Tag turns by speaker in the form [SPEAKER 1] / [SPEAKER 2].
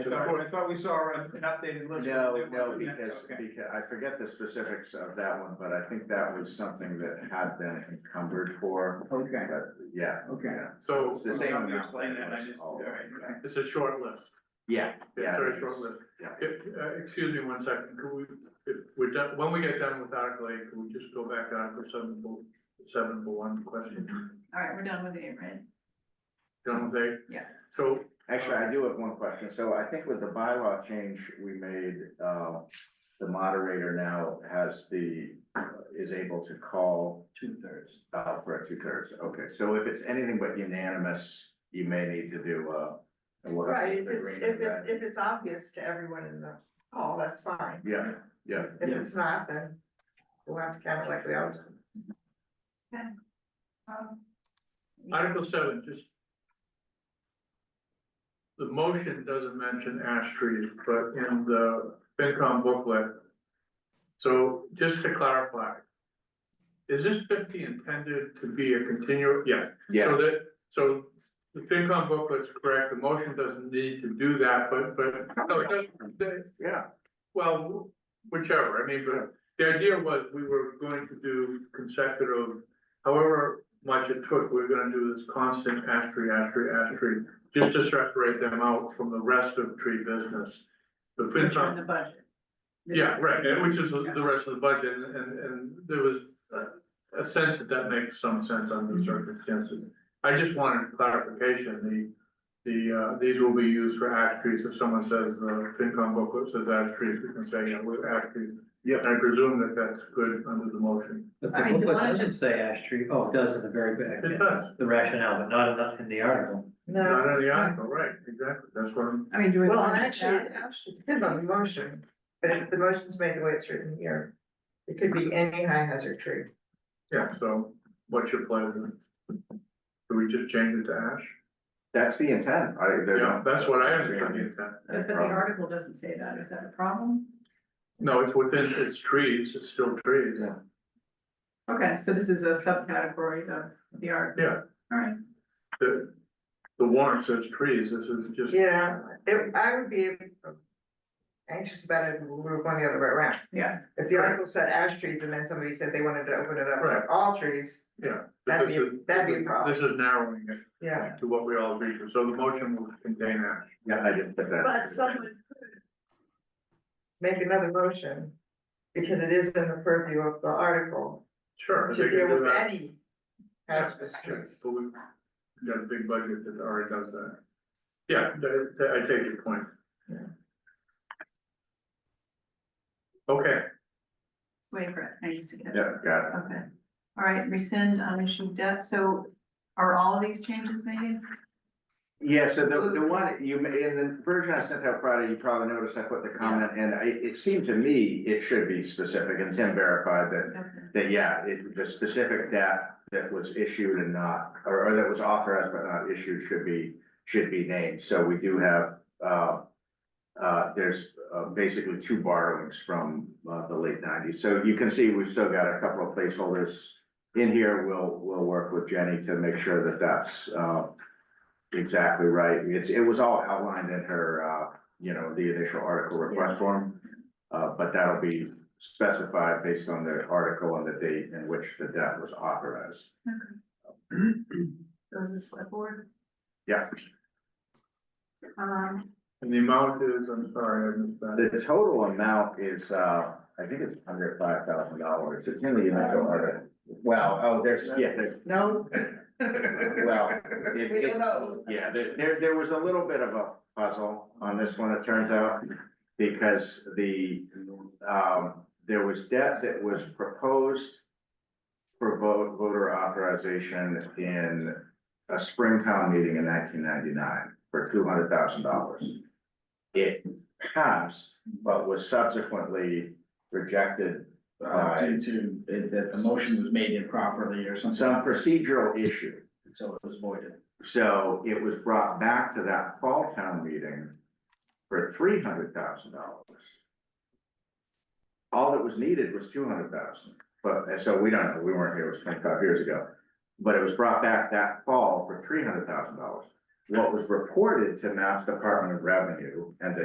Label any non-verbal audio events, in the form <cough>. [SPEAKER 1] I thought we saw an updated list.
[SPEAKER 2] No, no, because,
[SPEAKER 1] Okay.
[SPEAKER 2] because I forget the specifics of that one, but I think that was something that had been encumbered for,
[SPEAKER 1] Okay,
[SPEAKER 2] but yeah.
[SPEAKER 1] okay.
[SPEAKER 3] So
[SPEAKER 2] It's the same
[SPEAKER 3] let me
[SPEAKER 2] amount.
[SPEAKER 3] explain that, I just-
[SPEAKER 2] Oh,
[SPEAKER 1] all right, okay.
[SPEAKER 3] it's a short list,
[SPEAKER 2] Yeah,
[SPEAKER 3] it's
[SPEAKER 2] yeah.
[SPEAKER 3] a very
[SPEAKER 2] it
[SPEAKER 3] short
[SPEAKER 2] is.
[SPEAKER 3] list.
[SPEAKER 2] yeah.
[SPEAKER 3] If, uh, excuse me one second, could we, if we're done, when we get done with Article eight, can we just go back to Article seven for, seven for one
[SPEAKER 2] Mm-hmm.
[SPEAKER 3] question?
[SPEAKER 4] All right, we're done with it, right?
[SPEAKER 3] Done with eight?
[SPEAKER 4] Yeah.
[SPEAKER 3] So,
[SPEAKER 2] Actually, I do have one question. So I think with the bylaw change we made, uh, the moderator now has the, is able to call
[SPEAKER 1] Two thirds.
[SPEAKER 2] uh, for a two thirds. Okay, so if it's anything but unanimous, you may need to do, uh. and we'll have to
[SPEAKER 5] Right, if it's,
[SPEAKER 2] agree on
[SPEAKER 5] if
[SPEAKER 2] that.
[SPEAKER 5] it, if it's obvious to everyone in the hall, that's fine.
[SPEAKER 2] Yeah, yeah.
[SPEAKER 5] If
[SPEAKER 1] Yeah.
[SPEAKER 5] it's not, then we'll have to count it like we always do.
[SPEAKER 4] Um,
[SPEAKER 3] Article seven, just. The motion doesn't mention ash trees, but in the FinCom booklet. So just to clarify. Is this fifty intended to be a continue, yeah, So that, so the FinCom booklet's correct, the motion doesn't need to do that, but, but, no, it doesn't, the-
[SPEAKER 2] Yeah,
[SPEAKER 3] well, whichever, I mean, but the idea was we were going to do consecutive, however much it took, we were gonna do this constant ash tree, ash tree, ash tree, just to separate them out from the rest of tree business. The
[SPEAKER 4] Which are
[SPEAKER 3] FinCom
[SPEAKER 4] in the budget.
[SPEAKER 3] yeah, right, and which is the rest of the budget, and, and- and there was a- a sense that that makes some sense under the circumstances. I just wanted clarification, the, the, uh, these will be used for ash trees, if someone says, uh, FinCom booklet says ash trees, we can say, yeah, we're ash trees.
[SPEAKER 2] Yeah.
[SPEAKER 3] And I presume that that's good under the motion.
[SPEAKER 6] But
[SPEAKER 4] All
[SPEAKER 6] the
[SPEAKER 4] right, you
[SPEAKER 6] booklet
[SPEAKER 4] wanna
[SPEAKER 6] doesn't
[SPEAKER 4] just-
[SPEAKER 6] say ash tree, oh, it does at the very back,
[SPEAKER 3] It <laughs> does,
[SPEAKER 6] the rationale, but not enough in the article.
[SPEAKER 3] not
[SPEAKER 5] No,
[SPEAKER 3] in
[SPEAKER 5] it's
[SPEAKER 3] the
[SPEAKER 5] not.
[SPEAKER 3] article, right, exactly, that's what I'm,
[SPEAKER 4] I mean, do we
[SPEAKER 5] Well,
[SPEAKER 4] want to
[SPEAKER 5] actually,
[SPEAKER 4] actually?
[SPEAKER 5] it actually depends on the motion, but if the motion's made the way it's written here, it could be any high hazard tree.
[SPEAKER 3] yeah, so what's your pleasure? Do we just change it to ash?
[SPEAKER 2] that's the intent. I, they
[SPEAKER 3] Yeah,
[SPEAKER 2] don't-
[SPEAKER 3] that's what I understand the intent.
[SPEAKER 4] But the article doesn't say that, is that a problem?
[SPEAKER 3] No, it's within, it's trees, it's still trees.
[SPEAKER 2] Yeah.
[SPEAKER 4] Okay, so this is a subcategory of the art.
[SPEAKER 3] Yeah.
[SPEAKER 4] All right,
[SPEAKER 3] The, the warrant says trees, this is just,
[SPEAKER 5] Yeah, it, I would be anxious about it if we were going the other way around.
[SPEAKER 4] yeah,
[SPEAKER 5] If the article said ash trees and then somebody said they wanted to open it up
[SPEAKER 3] Right.
[SPEAKER 5] to all trees,
[SPEAKER 3] yeah.
[SPEAKER 5] That'd
[SPEAKER 3] this
[SPEAKER 5] be-
[SPEAKER 3] is-
[SPEAKER 5] that'd be a problem.
[SPEAKER 3] This is narrowing it
[SPEAKER 5] yeah.
[SPEAKER 3] to what we all agreed to, so the motion will contain ash.
[SPEAKER 2] Yeah, I didn't put that.
[SPEAKER 5] But someone could make another motion, because it is in the purview of the article,
[SPEAKER 3] Sure. I
[SPEAKER 5] to
[SPEAKER 3] think we
[SPEAKER 5] deal
[SPEAKER 3] do
[SPEAKER 5] with
[SPEAKER 3] that.
[SPEAKER 5] any hazardous trees.
[SPEAKER 3] But we we got a big budget that already does that. Yeah, that- that- I take your point.
[SPEAKER 5] Yeah.
[SPEAKER 3] Okay,
[SPEAKER 4] wait for it, I used to get it.
[SPEAKER 2] Yeah, got it.
[SPEAKER 4] Okay, all right, rescind unissued debt, so are all of these changes made?
[SPEAKER 2] Yeah, so the, the one, you, ma- in the version I sent out Friday, you probably noticed I put the comment, and I, it seemed to me it should be specific, and Tim verified that,
[SPEAKER 4] Okay.
[SPEAKER 2] that, yeah, it, the specific debt that was issued and not, or, or that was authorized but not issued should be, should be named, so we do have, uh, uh, there's, uh, basically two borrowings from, uh, the late nineties, so you can see we've still got a couple of placeholders in here, we'll, we'll work with Jenny to make sure that that's, uh, Exactly right. It's, it was all outlined in her, uh, you know, the initial article request form. Uh, but that'll be specified based on the article and the date in which the debt was authorized.
[SPEAKER 4] So is this select board?
[SPEAKER 2] Yeah,
[SPEAKER 4] Um,
[SPEAKER 3] and the amount is, I'm sorry, I missed that.
[SPEAKER 2] the total amount is, uh, I think it's under five thousand dollars. It's in the initial article. Well, oh, there's, yeah, there,
[SPEAKER 5] No.
[SPEAKER 2] well, it,
[SPEAKER 5] We
[SPEAKER 2] it,
[SPEAKER 5] don't know.
[SPEAKER 2] Yeah, there, there, there was a little bit of a puzzle on this one, it turns out, because the, um, there was debt that was proposed for vote, voter authorization in a spring town meeting in nineteen ninety-nine for two hundred thousand dollars. It passed, but was subsequently rejected
[SPEAKER 7] uh,
[SPEAKER 2] by
[SPEAKER 7] due to, that- that the motion was made improperly or something.
[SPEAKER 2] some procedural issue.
[SPEAKER 7] So it was voided.
[SPEAKER 2] So it was brought back to that fall town meeting for three hundred thousand dollars. All that was needed was two hundred thousand, but, and so we don't know, we weren't here, it was twenty-five years ago. But it was brought back that fall for three hundred thousand dollars. What was reported to Mass Department of Revenue and to